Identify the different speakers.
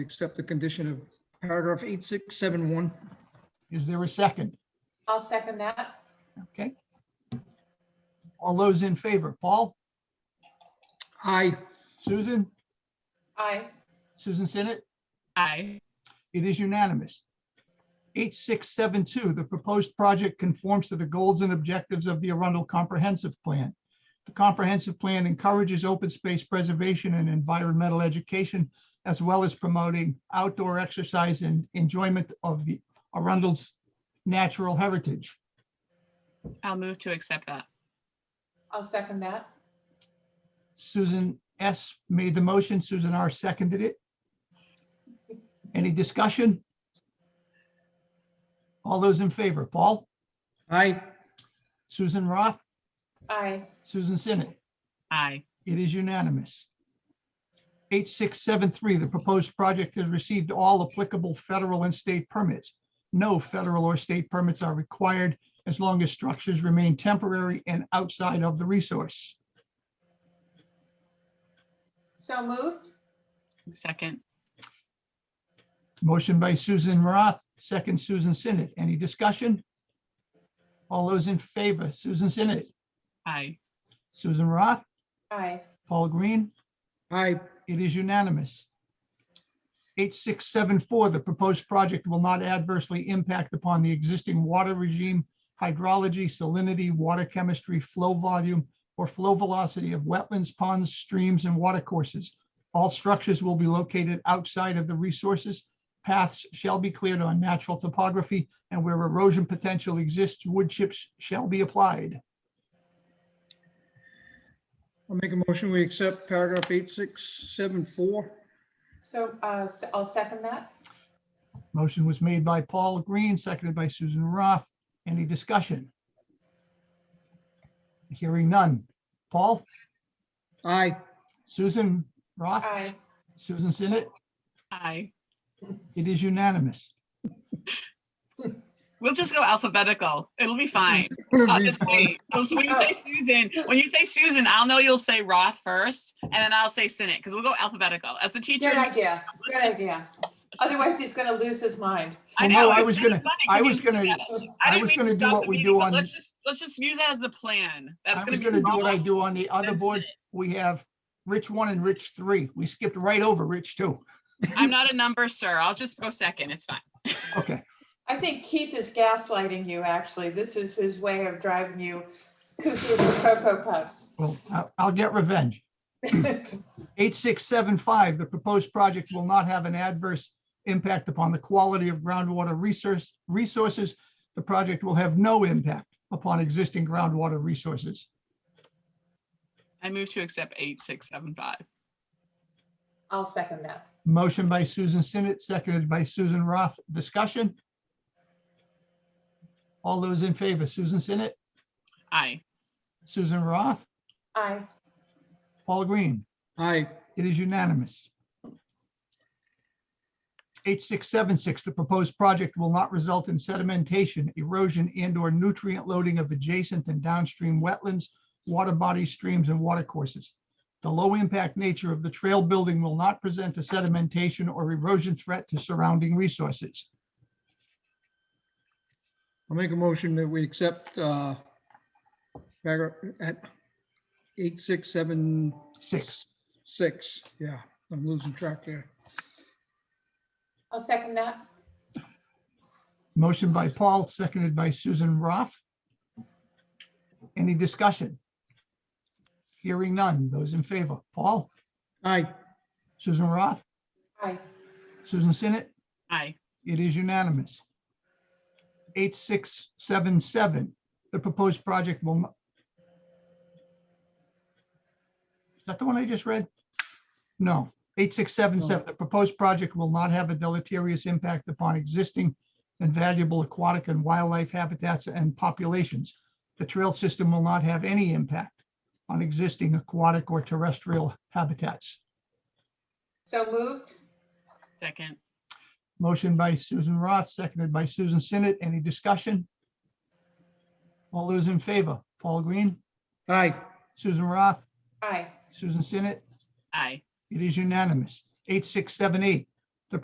Speaker 1: accept the condition of paragraph 8671.
Speaker 2: Is there a second?
Speaker 3: I'll second that.
Speaker 2: Okay. All those in favor, Paul,
Speaker 1: Aye.
Speaker 2: Susan,
Speaker 3: Aye.
Speaker 2: Susan Sinnet,
Speaker 4: Aye.
Speaker 2: it is unanimous. 8672, the proposed project conforms to the goals and objectives of the Arundel Comprehensive Plan. The comprehensive plan encourages open space preservation and environmental education, as well as promoting outdoor exercise and enjoyment of the Arundel's natural heritage.
Speaker 4: I'll move to accept that.
Speaker 3: I'll second that.
Speaker 2: Susan S. made the motion, Susan R. seconded it. Any discussion? All those in favor, Paul,
Speaker 1: Aye.
Speaker 2: Susan Roth,
Speaker 3: Aye.
Speaker 2: Susan Sinnet,
Speaker 4: Aye.
Speaker 2: it is unanimous. 8673, the proposed project has received all applicable federal and state permits. No federal or state permits are required as long as structures remain temporary and outside of the resource.
Speaker 3: So moved.
Speaker 4: Second.
Speaker 2: Motion by Susan Roth, second Susan Sinnet. Any discussion? All those in favor, Susan Sinnet,
Speaker 4: Aye.
Speaker 2: Susan Roth,
Speaker 3: Aye.
Speaker 2: Paul Green,
Speaker 1: Aye.
Speaker 2: it is unanimous. 8674, the proposed project will not adversely impact upon the existing water regime, hydrology, salinity, water chemistry, flow volume, or flow velocity of wetlands, ponds, streams, and watercourses. All structures will be located outside of the resources. Paths shall be cleared on natural topography, and where erosion potential exists, wood chips shall be applied.
Speaker 1: I'll make a motion, we accept paragraph 8674.
Speaker 3: So uh, s- I'll second that.
Speaker 2: Motion was made by Paul Green, seconded by Susan Roth. Any discussion? Hearing none. Paul,
Speaker 1: Aye.
Speaker 2: Susan Roth,
Speaker 3: Aye.
Speaker 2: Susan Sinnet,
Speaker 4: Aye.
Speaker 2: it is unanimous.
Speaker 4: We'll just go alphabetical. It'll be fine. I'll just wait. So when you say Susan, when you say Susan, I'll know you'll say Roth first, and then I'll say Sinnott, because we'll go alphabetical. As the teacher,
Speaker 3: Good idea. Good idea. Otherwise, he's going to lose his mind.
Speaker 4: I
Speaker 2: Well, no,
Speaker 4: know.
Speaker 2: Oh, I
Speaker 4: it's
Speaker 2: was
Speaker 4: kinda
Speaker 2: gonna-
Speaker 4: funny
Speaker 2: I
Speaker 4: 'cause
Speaker 2: was
Speaker 4: he's
Speaker 2: gonna-
Speaker 4: mad at us.
Speaker 2: I
Speaker 4: didn't
Speaker 2: was
Speaker 4: mean
Speaker 2: gonna
Speaker 4: to
Speaker 2: do
Speaker 4: stop
Speaker 2: what
Speaker 4: the
Speaker 2: we do
Speaker 4: meeting, but
Speaker 2: on-
Speaker 4: Let's just, let's just use that as the plan. That's
Speaker 2: I
Speaker 4: gonna
Speaker 2: was
Speaker 4: be.
Speaker 2: going to do what I
Speaker 4: Roth,
Speaker 2: do on the other
Speaker 4: then
Speaker 2: board.
Speaker 4: Sinnott.
Speaker 2: We have Rich one and Rich three. We skipped right over Rich two.
Speaker 4: I'm not a number, sir. I'll just go second. It's fine.
Speaker 2: Okay,
Speaker 3: I think Keith is gaslighting you, actually. This is his way of driving you cuckoo for Cocoa Puffs.
Speaker 2: well, I- I'll get revenge. 8675, the proposed project will not have an adverse impact upon the quality of groundwater resource, resources. The project will have no impact upon existing groundwater resources.
Speaker 4: I move to accept eight, six, seven, five.
Speaker 3: I'll second that.
Speaker 2: Motion by Susan Sinnet, seconded by Susan Roth. Discussion? All those in favor, Susan Sinnet,
Speaker 4: Aye.
Speaker 2: Susan Roth,
Speaker 3: Aye.
Speaker 2: Paul Green.
Speaker 1: Aye.
Speaker 2: It is unanimous. 8676, the proposed project will not result in sedimentation, erosion, and/or nutrient loading of adjacent and downstream wetlands, water bodies, streams, and watercourses. The low-impact nature of the trail building will not present a sedimentation or erosion threat to surrounding resources.
Speaker 1: I'll make a motion that we accept uh, paragraph at 8676.
Speaker 2: Six.
Speaker 1: Yeah, I'm losing track there.
Speaker 3: I'll second that.
Speaker 2: Motion by Paul, seconded by Susan Roth. Any discussion? Hearing none. Those in favor, Paul,
Speaker 1: Aye.
Speaker 2: Susan Roth,
Speaker 3: Aye.
Speaker 2: Susan Sinnet,
Speaker 4: Aye.
Speaker 2: it is unanimous. 8677, the proposed project will. not- Is that the one I just read? No, 8677, the proposed project will not have a deleterious impact upon existing and valuable aquatic and wildlife habitats and populations. The trail system will not have any impact on existing aquatic or terrestrial habitats.
Speaker 3: So moved.
Speaker 4: Second.
Speaker 2: Motion by Susan Roth, seconded by Susan Sinnet. Any discussion? All those in favor, Paul Green,
Speaker 1: Aye.
Speaker 2: Susan Roth,
Speaker 3: Aye.
Speaker 2: Susan Sinnet,
Speaker 4: Aye.
Speaker 2: it is unanimous. 8678,